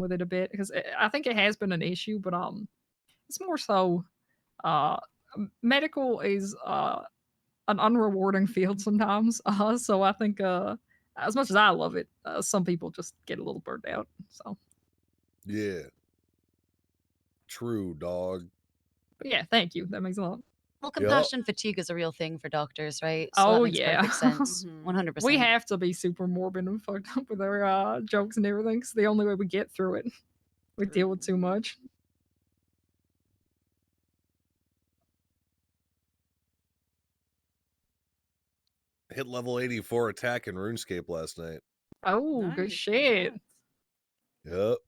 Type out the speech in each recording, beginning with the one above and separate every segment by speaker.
Speaker 1: with it a bit because I think it has been an issue, but um, it's more so uh, medical is uh an unrewarding field sometimes. Uh, so I think uh, as much as I love it, uh, some people just get a little burnt out. So,
Speaker 2: Yeah, true, dog.
Speaker 1: but yeah, thank you. That makes a lot.
Speaker 3: Well,
Speaker 2: Yup.
Speaker 3: compassion fatigue is a real thing for doctors, right? that
Speaker 1: Oh,
Speaker 3: makes
Speaker 1: yeah.
Speaker 3: perfect sense.
Speaker 4: Mhm.
Speaker 3: One hundred percent.
Speaker 1: We have to be super morbid and fucked up with our uh, jokes and everything. 'cause It's the only way we get through it. We deal with too much.
Speaker 2: Hit level 84 attack in RuneScape last night.
Speaker 1: Oh, good
Speaker 4: Nice,
Speaker 1: shit.
Speaker 4: congrats.
Speaker 2: Yep.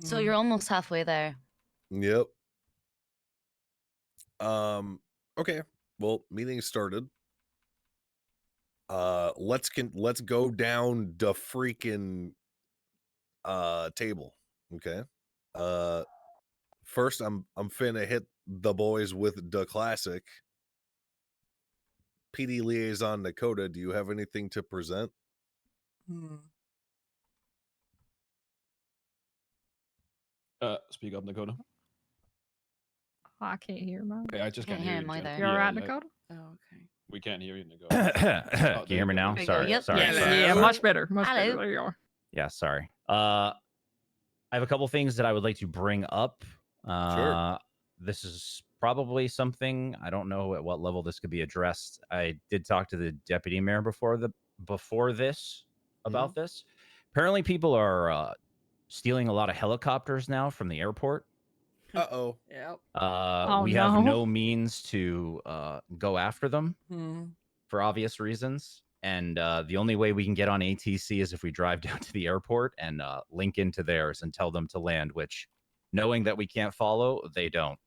Speaker 4: Mm.
Speaker 3: So you're almost halfway there.
Speaker 2: Yep. Um okay. Well, meeting started. Uh let's can let's go down the freaking uh table. Okay. Uh first I'm I'm finna hit the boys with the classic. PD liaison Dakota, do you have anything to present?
Speaker 5: Uh, speak up, Dakota.
Speaker 1: I can't hear mine.
Speaker 5: Okay, I just
Speaker 3: Can't
Speaker 5: can't,
Speaker 3: hear
Speaker 5: hear
Speaker 3: him
Speaker 5: you, Jen.
Speaker 3: either.
Speaker 1: You all right,
Speaker 5: like,
Speaker 1: Dakota?
Speaker 4: Oh, okay.
Speaker 5: We can't hear you, Dakota.
Speaker 6: Can you hear me now?
Speaker 3: There you go.
Speaker 6: Sorry.
Speaker 3: Yep.
Speaker 6: Sorry.
Speaker 2: Yeah,
Speaker 6: sorry,
Speaker 1: Yeah,
Speaker 2: Hello?
Speaker 6: sorry.
Speaker 1: much better. Much better.
Speaker 3: Hello?
Speaker 1: There you are.
Speaker 6: Yeah, sorry. Uh, I have a couple things that I would like to bring up. Uh, This is probably something I don't know at what level this could be addressed. I did talk to the deputy mayor before the before this about this. Apparently, people are uh, stealing a lot of helicopters now from the airport.
Speaker 2: Uh-oh.
Speaker 4: Yep.
Speaker 6: Uh,
Speaker 1: Oh,
Speaker 6: we have
Speaker 1: no.
Speaker 6: no means to uh, go after them
Speaker 4: Mm.
Speaker 6: for obvious reasons. And uh, the only way we can get on ATC is if we drive down to the airport and uh, link into theirs and tell them to land, which, knowing that we can't follow, they don't.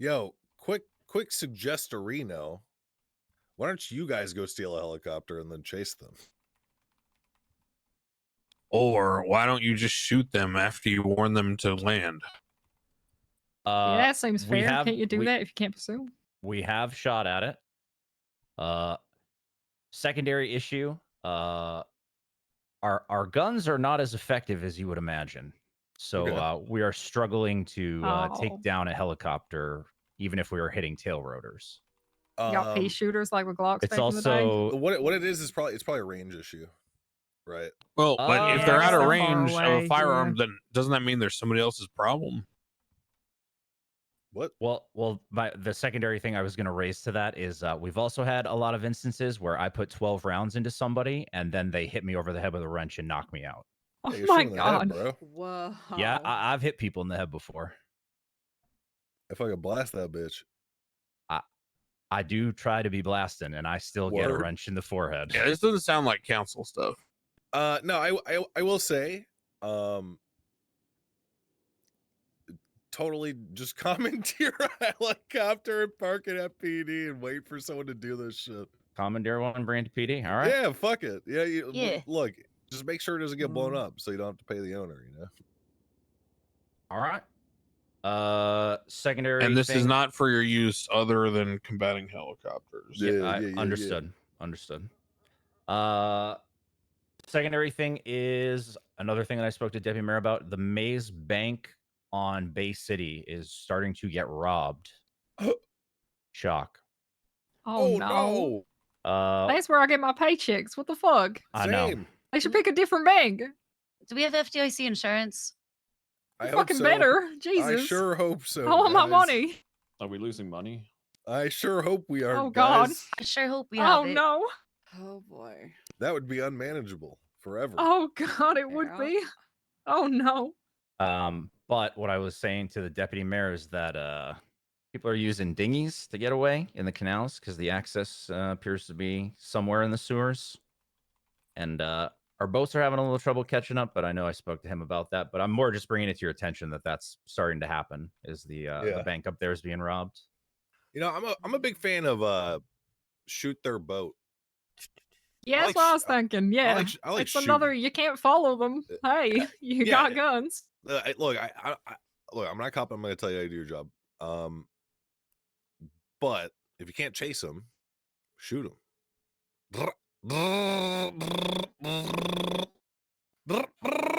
Speaker 2: Yo, quick, quick suggestorino. Why don't you guys go steal a helicopter and then chase them?
Speaker 7: Or why don't you just shoot them after you warn them to land?
Speaker 6: Uh,
Speaker 1: yeah,
Speaker 2: Uh,
Speaker 1: that seems
Speaker 6: we
Speaker 1: fair.
Speaker 6: have-
Speaker 1: can't you do
Speaker 6: we-
Speaker 1: that if you can't pursue?
Speaker 6: Uh, We have shot at it. Uh, secondary issue uh, our, our guns are not as effective as you would imagine. So
Speaker 2: Okay.
Speaker 6: uh, we are struggling to uh,
Speaker 1: Oh.
Speaker 6: take down a helicopter, even if we were hitting tail rotors.
Speaker 1: Y'all pea
Speaker 2: Um, Oh
Speaker 1: shooters like with Glocks back
Speaker 6: It's
Speaker 1: in the day.
Speaker 6: also
Speaker 2: what it- what it is is probably it's probably a range issue, right?
Speaker 7: Well, Oh, but
Speaker 6: Uh,
Speaker 7: if they're out
Speaker 6: so
Speaker 7: of
Speaker 6: far
Speaker 7: range of
Speaker 1: away,
Speaker 7: a firearm, then doesn't that mean there's somebody else's problem?
Speaker 2: What?
Speaker 6: Well, well, my, the secondary thing I was going to raise to that is uh, we've also had a lot of instances where I put 12 rounds into somebody and then they hit me over the head with a wrench and knock me out.
Speaker 1: Oh
Speaker 2: Hey, you're
Speaker 1: my
Speaker 2: shooting in the
Speaker 1: god.
Speaker 2: head, bro!
Speaker 4: Wow.
Speaker 6: Yeah, I, I've hit people in the head before.
Speaker 2: If I could blast that bitch,
Speaker 6: I do try to be blasting and I still get a
Speaker 2: Word.
Speaker 6: wrench in the forehead.
Speaker 7: Yeah, this doesn't sound like council stuff.
Speaker 2: uh, no, I, w- I w- I will say, um, totally just commandeer a helicopter and park it at PD and wait for someone to do this shit.
Speaker 6: Commandeer one, brand PD. All right.
Speaker 2: Yeah, fuck it. Yeah, you, l-
Speaker 3: Yeah.
Speaker 2: Look, just make sure it doesn't get blown
Speaker 4: Mm.
Speaker 2: up, so you don't have to pay the owner. You know.
Speaker 6: All right. Uh, secondary.
Speaker 7: And this is
Speaker 6: thing-
Speaker 7: not for your use other than combating helicopters.
Speaker 6: Yeah,
Speaker 2: Yeah,
Speaker 6: I
Speaker 2: yeah, yeah, yeah.
Speaker 6: understood. Understood. Uh secondary thing is another thing that I spoke to Deputy Mayor about. The Maze Bank on Bay City is starting to get robbed. Shock.
Speaker 1: Oh, no.
Speaker 6: Uh
Speaker 1: That's where I get my paychecks. What the fuck?
Speaker 6: I know.
Speaker 2: Same.
Speaker 1: I should pick a different bank.
Speaker 3: Do we have FDIC insurance?
Speaker 2: I hope
Speaker 1: Fucking
Speaker 2: so.
Speaker 1: better. Jesus.
Speaker 2: I sure hope so.
Speaker 1: I want my
Speaker 2: guys.
Speaker 1: money.
Speaker 5: Are we losing money?
Speaker 2: I sure hope we are.
Speaker 1: Oh, God.
Speaker 2: guys.
Speaker 3: I sure hope we have
Speaker 1: Oh
Speaker 3: it.
Speaker 1: no.
Speaker 4: Oh boy.
Speaker 2: That would be unmanageable forever.
Speaker 1: Oh god, it would
Speaker 4: Yeah.
Speaker 1: be. Oh no.
Speaker 6: Um, but what I was saying to the deputy mayor is that uh people are using dinghies to get away in the canals because the access uh, appears to be somewhere in the sewers. And uh our boats are having a little trouble catching up, but I know I spoke to him about that. But I'm more just bringing it to your attention that that's starting to happen. Is the uh,
Speaker 2: Yeah.
Speaker 6: the bank up there is being robbed?
Speaker 2: You know, I'm a I'm a big fan of uh shoot their boat.
Speaker 1: Yeah, that's
Speaker 2: like
Speaker 1: what
Speaker 2: sh-
Speaker 1: I was
Speaker 2: I-
Speaker 1: thinking. Yeah.
Speaker 2: like sh- I like
Speaker 1: it's another you can't follow them. Hey, you
Speaker 2: Uh, yeah,
Speaker 1: got
Speaker 2: yeah.
Speaker 1: guns.
Speaker 2: Uh, I, look, I, I, I look, I'm not a cop. I'm going to tell you how to do your job. Um, but if you can't chase them, shoot them.